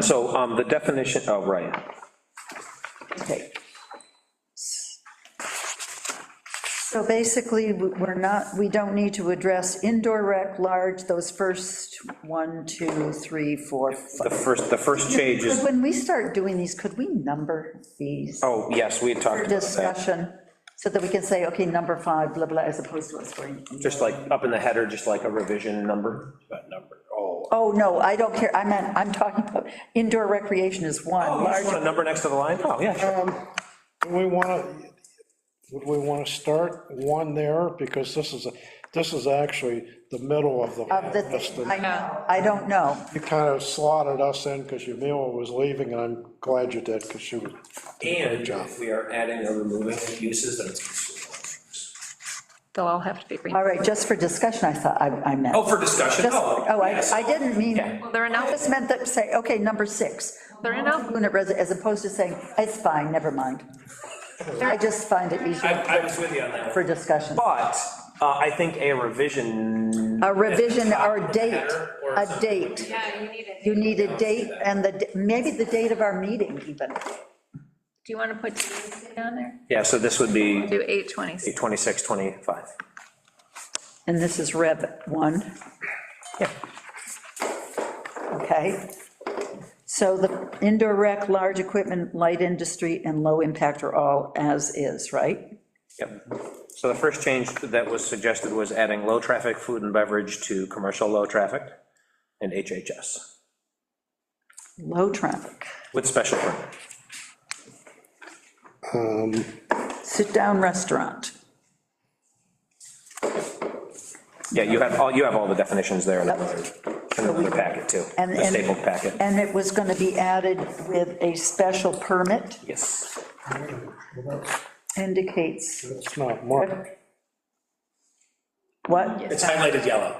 so um, the definition, oh, right. Okay. So basically, we're not, we don't need to address indoor rec, large, those first one, two, three, four, The five. first, the first change is, When we start doing these, could we number these oh, yes, we had talked for about that. discussion? So that we can say, okay, number five, blah, blah, as opposed to us going. Just like up in the header, just like a revision number. That number, oh. Oh, no, I don't care, I meant, I'm talking about indoor recreation is one, You just want large, a number next to the line? Oh, yeah, sure. We want to, would we want to start one there? Because this is, this is actually the middle of the of the, list. I know, I don't know. You kind of slotted us in because Yumila was leaving, and I'm glad you did, because she was, And job. if we are adding or removing uses, then it's. They'll all have to be All green. right, just for discussion, I thought, I I meant. Oh, for discussion, Just, oh. oh, I, yes. I didn't mean, Yeah. I They're in just alpha, meant that, say, okay, number six. they're in alpha. Unit resi- As opposed to saying, it's fine, never mind. I just find it I, easier I was with you on that. for discussion. But uh, I think a revision, A revision or Or date, a something would date. be- Yeah, you need it. You need a date and the, d- maybe the date of our meeting even. Do you want to put today's date on there? yeah, so this would be Do 826. 26, 25. And this is Rev 1. Yeah. Okay. So the indoor rec, large equipment, light industry, and low impact are all as is, right? Yep. So the first change that was suggested was adding low-traffic food and beverage to commercial low-traffic and HHS Low traffic. with special permit. Sit-down restaurant. Yeah, you have all, you have all the definitions there in another, in another packet too, And- the and- stapled packet. And it was going to be added with a special permit Yes. indicates it's not marked. what? It's highlighted yellow.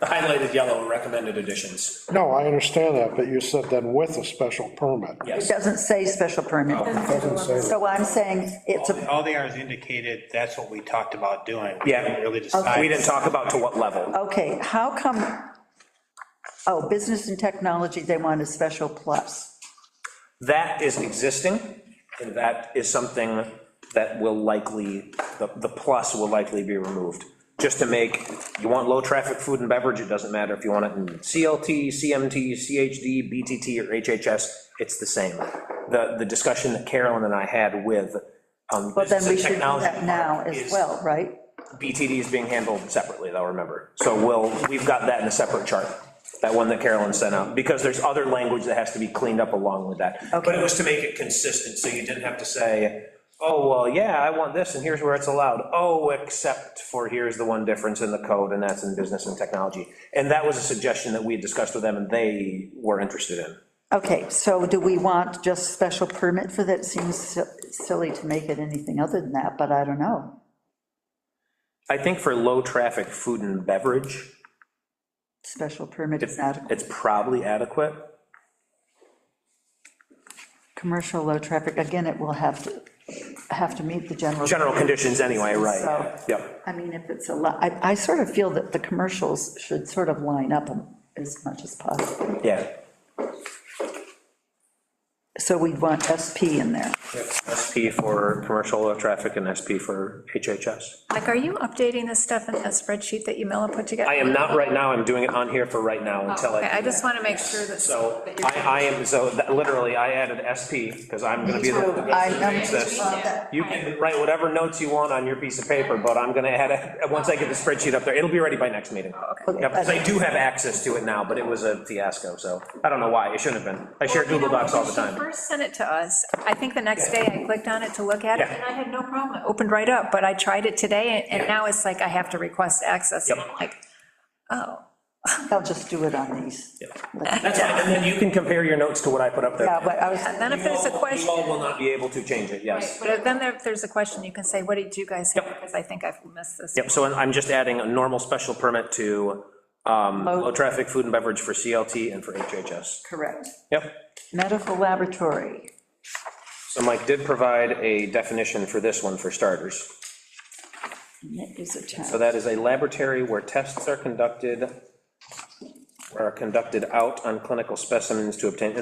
The highlighted yellow are recommended additions. No, I understand that, but you said then with a special permit. It Yes. doesn't say special permit. So I'm saying it's a, All they are is indicated, that's what we talked about doing. Yeah. We didn't really We decide. didn't talk about to what level. okay, how come, oh, business and technology, they want a special plus. That is existing, and that is something that will likely, the, the plus will likely be removed. Just to make, you want low-traffic food and beverage, it doesn't matter if you want it in CLT, CMT, CHD, BTT, or HHS, it's the same. The, the discussion that Carolyn and I had with, um, But then business we and should do technology that now part as is well, right? BTD is being handled separately, though, remember. So we'll, we've got that in a separate chart, that one that Carolyn sent out, because there's other language that has to be cleaned up along with that. But it was to make it consistent, so you didn't have to say, oh, well, yeah, I want this, and here's where it's allowed. Oh, except for here's the one difference in the code, and that's in business and technology. And that was a suggestion that we had discussed with them, and they were interested in. Okay, so do we want just special permit for that? Seems si- silly to make it anything other than that, but I don't know. I think for low-traffic food and beverage, Special permit it's, is adequate. it's probably adequate. Commercial low traffic, again, it will have to, have to meet the general. General conditions anyway, right? So- Yep. I mean, if it's a lot, I, I sort of feel that the commercials should sort of line up as much as possible. Yeah, So we'd want SP in there. SP for commercial traffic and SP for HHS. Like, are you updating this stuff in that spreadsheet that Yumila put together? I am not right now, I'm doing it on here for right now until I. Oh, Okay, I do just that. want to make sure that. So that you're- I, I am, so that- literally, I added SP, because I'm gonna be the one that I uh, goes through and says, know. You can write whatever notes you want on your piece of paper, but I'm gonna add, it- once I get the spreadsheet up there, it'll be ready by next meeting. Yep, 'cause I do have access to it now, but it was a fiasco, so I don't know why, it shouldn't have been. I share Well, you Google know, Docs all the when she time. First sent it to us, I think the next day I clicked on it to look at it, Yeah. and I had no problem, it opened right up, but I tried it today, and- and now it's like I have to request access, and Yep. I'm like, oh. I'll just do it on these. That's fine, and then you can compare your notes to what I put up there. Yeah, but I was, And then if You there's a all- question. You all will not be able to change it, yes. But if then there- if there's a question, you can say, what did you guys have? Yep. Because I think I've missed this. Yep, so I'm- I'm just adding a normal special permit to um, Low- low-traffic food and beverage for CLT and for HHS. correct. Yep. Medical laboratory, So Mike did provide a definition for this one for starters. and it is attached. So that is a laboratory where tests are conducted, are conducted out on clinical specimens to obtain